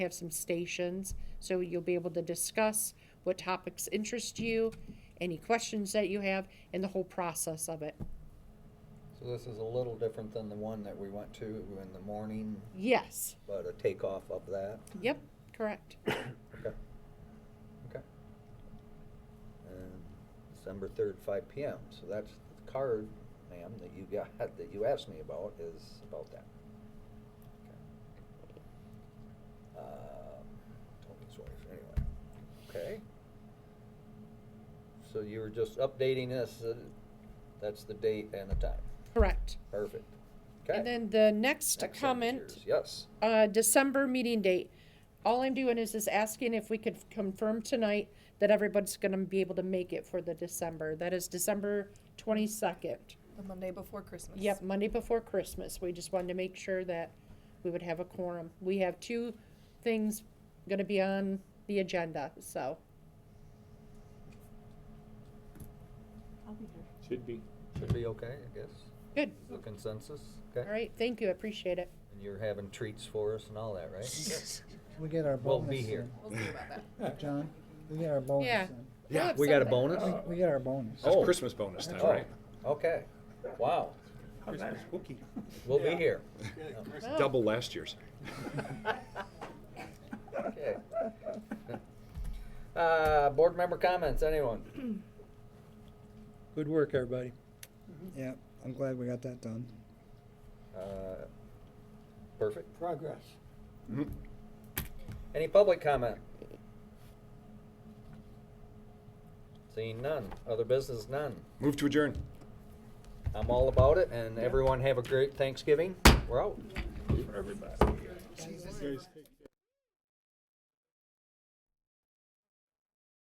have some stations, so you'll be able to discuss what topics interest you, any questions that you have, and the whole process of it. So this is a little different than the one that we went to in the morning, Yes, but a takeoff of that. yep, correct. Okay. Okay. And December third, five P M. So that's the card, ma'am, that you got, that you asked me about is about that. Okay. Um, Tony's wife, anyway. Okay. So you were just updating us, uh, that's the date and the time. Correct. Perfect. Okay. And then the next Excellent. comment, Cheers. Yes. uh, December meeting date. All I'm doing is just asking if we could confirm tonight that everybody's gonna be able to make it for the December. That is December twenty-second. The Monday before Christmas. Yep, Monday before Christmas. We just wanted to make sure that we would have a quorum. We have two things gonna be on the agenda, so. I'll be here. Should be. Should be okay, I guess. Good. The consensus, All okay? right, thank you, I appreciate it. And you're having treats for us and all that, right? We get our We'll bonus. be here. We'll see about that. then, John, we get our bonus. Yeah. then. We'll Oh, have We got a something. bonus? We- We get our bonus. Oh. That's Christmas bonus time, Oh. right? Okay, wow, Christmas cookie. we'll be here. Oh. Double last year's. Okay. Uh, board member comments, anyone? Good work, everybody. Yeah, I'm glad we got that done. Uh, Perfect. Progress. Any public comment? Seeing none, other business none. Move to adjourn. I'm all about it, and everyone have a great Thanksgiving. We're out. For everybody.